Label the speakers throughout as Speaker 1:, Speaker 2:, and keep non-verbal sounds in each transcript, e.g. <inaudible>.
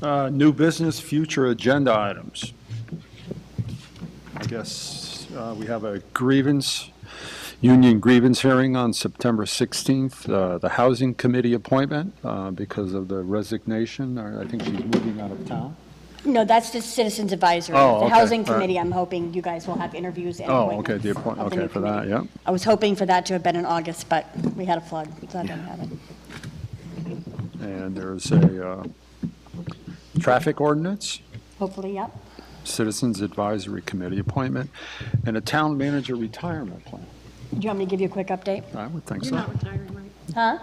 Speaker 1: Uh, New business, future agenda items. I guess uh, we have a grievance, union grievance hearing on September 16th, uh, the Housing Committee appointment uh, because of the resignation, or I think she's moving out of town.
Speaker 2: No, that's just Citizens Advisory.
Speaker 1: Oh,
Speaker 2: The
Speaker 1: okay,
Speaker 2: Housing
Speaker 1: all right.
Speaker 2: Committee, I'm hoping you guys will have interviews and
Speaker 1: Oh, okay,
Speaker 2: appointments
Speaker 1: the appoint-
Speaker 2: of the
Speaker 1: okay,
Speaker 2: new
Speaker 1: for that,
Speaker 2: committee.
Speaker 1: yeah.
Speaker 2: I was hoping for that to have been in August, but we had a flood, so I didn't have it.
Speaker 1: And there's a uh, traffic ordinance,
Speaker 2: Hopefully, yep.
Speaker 1: Citizens Advisory Committee appointment, and a town manager retirement plan.
Speaker 2: Do you want me to give you a quick update?
Speaker 1: I would think
Speaker 3: You're
Speaker 1: so.
Speaker 3: not retiring, right?
Speaker 2: Huh?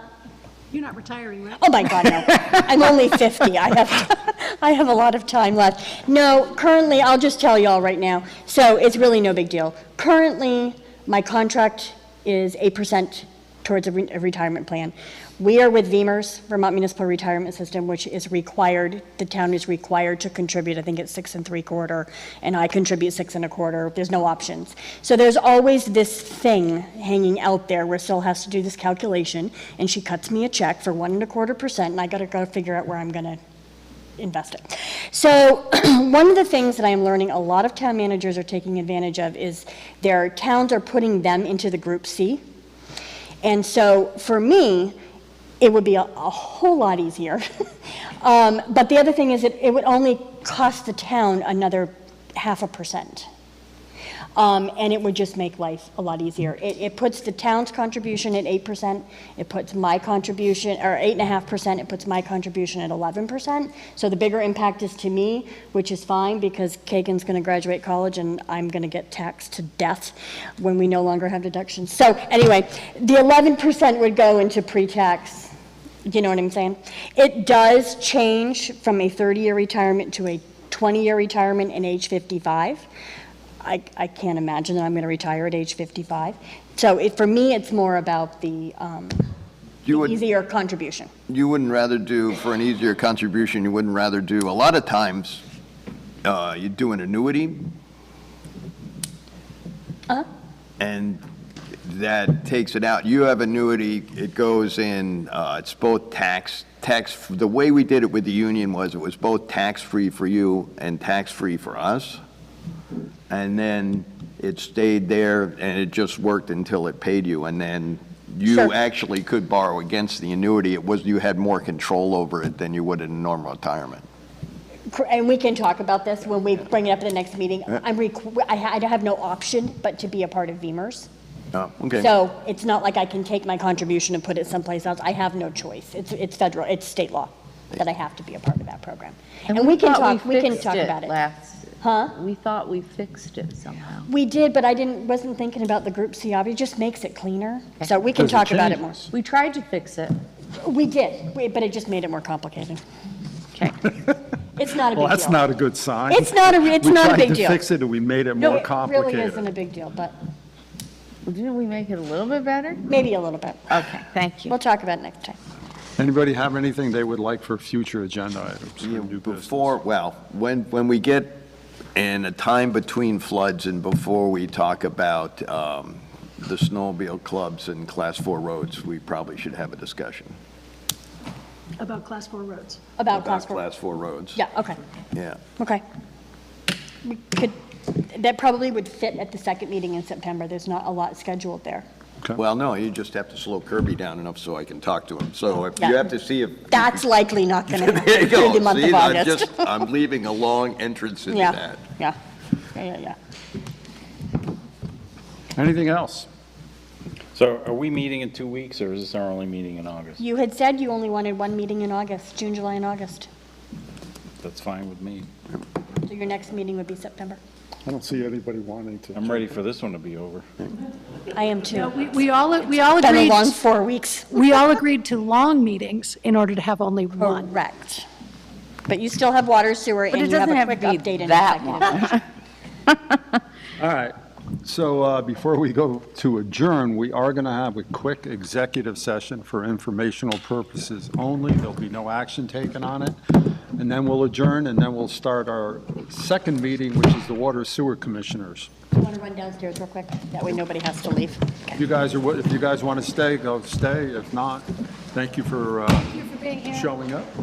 Speaker 3: You're not retiring, right?
Speaker 2: Oh, my
Speaker 1: <laughs>
Speaker 2: God, no. I'm only 50. I have, <laughs> I have a lot of time left. No, currently, I'll just tell y'all right now, so it's really no big deal. Currently, my contract is 8% towards a re- a retirement plan. We are with VEMR's, Vermont Municipal Retirement System, which is required, the town is required to contribute, I think it's six and three quarter, and I contribute six and a quarter, there's no options. So there's always this thing hanging out there where Sil has to do this calculation, and she cuts me a check for one and a quarter percent, and I gotta go figure out where I'm gonna invest it. So <clears throat> one of the things that I'm learning a lot of town managers are taking advantage of is their towns are putting them into the group C. And so for me, it would be a, a whole lot easier. <laughs> um, but the other thing is that it would only cost the town another half a percent. Um, and it would just make life a lot easier. It, it puts the town's contribution at eight percent, it puts my contribution, or eight and a half percent, it puts my contribution at eleven percent. So the bigger impact is to me, which is fine, because Kagan's gonna graduate college and I'm gonna get taxed to death when we no longer have deductions. So anyway, the eleven percent would go into pre-tax, you know what I'm saying? It does change from a thirty-year retirement to a twenty-year retirement and age fifty-five. I, I can't imagine that I'm going to retire at age 55. So it, for me, it's more about the um,
Speaker 4: You would,
Speaker 2: easier contribution.
Speaker 4: you wouldn't rather do, for an easier contribution, you wouldn't rather do, a lot of times, uh, you do an annuity. And that takes it out. You have annuity, it goes in, uh, it's both tax, tax, the way we did it with the union was it was both tax-free for you and tax-free for us. And then it stayed there and it just worked until it paid you. And then you
Speaker 2: Sure.
Speaker 4: actually could borrow against the annuity. It was, you had more control over it than you would in a normal retirement.
Speaker 2: Cor- And we can talk about this when we bring it up at the next meeting. I'm, requ- I ha- I have no option but to be a part of VEMR's.
Speaker 4: Oh, okay.
Speaker 2: So it's not like I can take my contribution and put it someplace else. I have no choice. It's, it's federal, it's state law that I have to be a part of that program. And we can
Speaker 5: thought
Speaker 2: talk, we can
Speaker 5: fixed
Speaker 2: talk about it.
Speaker 5: last-
Speaker 2: Huh?
Speaker 5: We thought we fixed it somehow.
Speaker 2: We did, but I didn't, wasn't thinking about the group C, obvi- it just makes it cleaner. So we can talk about it more.
Speaker 5: We tried to fix it.
Speaker 2: We did, we- but it just made it more complicated.
Speaker 5: Okay.
Speaker 2: <laughs> It's not a big deal.
Speaker 1: Well, that's not a good sign.
Speaker 2: It's not a, it's not a big
Speaker 1: We tried
Speaker 2: deal.
Speaker 1: to fix it, and we made it more
Speaker 2: No, it really isn't a
Speaker 1: complicated.
Speaker 2: big deal, but
Speaker 5: Well, Didn't we make it a little bit better?
Speaker 2: maybe a little bit.
Speaker 5: Okay, thank you.
Speaker 2: We'll talk about it next time.
Speaker 1: Anybody have anything they would like for future agenda items or
Speaker 4: Yeah,
Speaker 1: new business?
Speaker 4: Before, well, when, when we get in a time between floods and before we talk about um, the snowmobile clubs and class four roads, we probably should have a discussion.
Speaker 3: About class four roads.
Speaker 2: About class
Speaker 4: About
Speaker 2: four.
Speaker 4: class four roads.
Speaker 2: Yeah, okay,
Speaker 4: Yeah.
Speaker 2: okay. We could, that probably would fit at the second meeting in September. There's not a lot scheduled there.
Speaker 4: Well, no, you just have to slow Kirby down enough so I can talk to him. So if
Speaker 2: Yeah.
Speaker 4: you have to see if.
Speaker 2: That's likely not going to
Speaker 4: <laughs> There you
Speaker 2: happen through
Speaker 4: go.
Speaker 2: the month
Speaker 4: See,
Speaker 2: of
Speaker 4: I'm
Speaker 2: August. <laughs>
Speaker 4: just, I'm leaving a long entrance into
Speaker 2: Yeah,
Speaker 4: that.
Speaker 2: yeah, yeah, yeah, yeah.
Speaker 1: Anything else?
Speaker 6: So are we meeting in two weeks, or is this our only meeting in August?
Speaker 2: You had said you only wanted one meeting in August, June, July, and August.
Speaker 6: That's fine with me.
Speaker 2: So your next meeting would be September.
Speaker 1: I don't see anybody wanting to.
Speaker 6: I'm ready for this one to be over.
Speaker 2: I am
Speaker 3: No,
Speaker 2: too.
Speaker 3: we, we all, we all
Speaker 2: Been a
Speaker 3: agreed,
Speaker 2: long four weeks.
Speaker 3: we all agreed to long meetings in order to have only
Speaker 2: Oh,
Speaker 3: one.
Speaker 2: Correct. But you still have water, sewer,
Speaker 5: But
Speaker 2: and
Speaker 5: it
Speaker 2: you have
Speaker 5: doesn't
Speaker 2: a
Speaker 5: have
Speaker 2: quick
Speaker 5: to
Speaker 2: update
Speaker 5: be
Speaker 2: in
Speaker 5: that
Speaker 2: <laughs> executive.
Speaker 5: one.
Speaker 1: All right. So uh, before we go to adjourn, we are going to have a quick executive session for informational purposes only. There'll be no action taken on it. And then we'll adjourn, and then we'll start our second meeting, which is the Water Sewer Commissioners.
Speaker 2: Do you want to run downstairs real quick? That way nobody has to leave.
Speaker 1: If you guys are, wi- if you guys want to stay, go stay. If not, thank you for uh, showing up.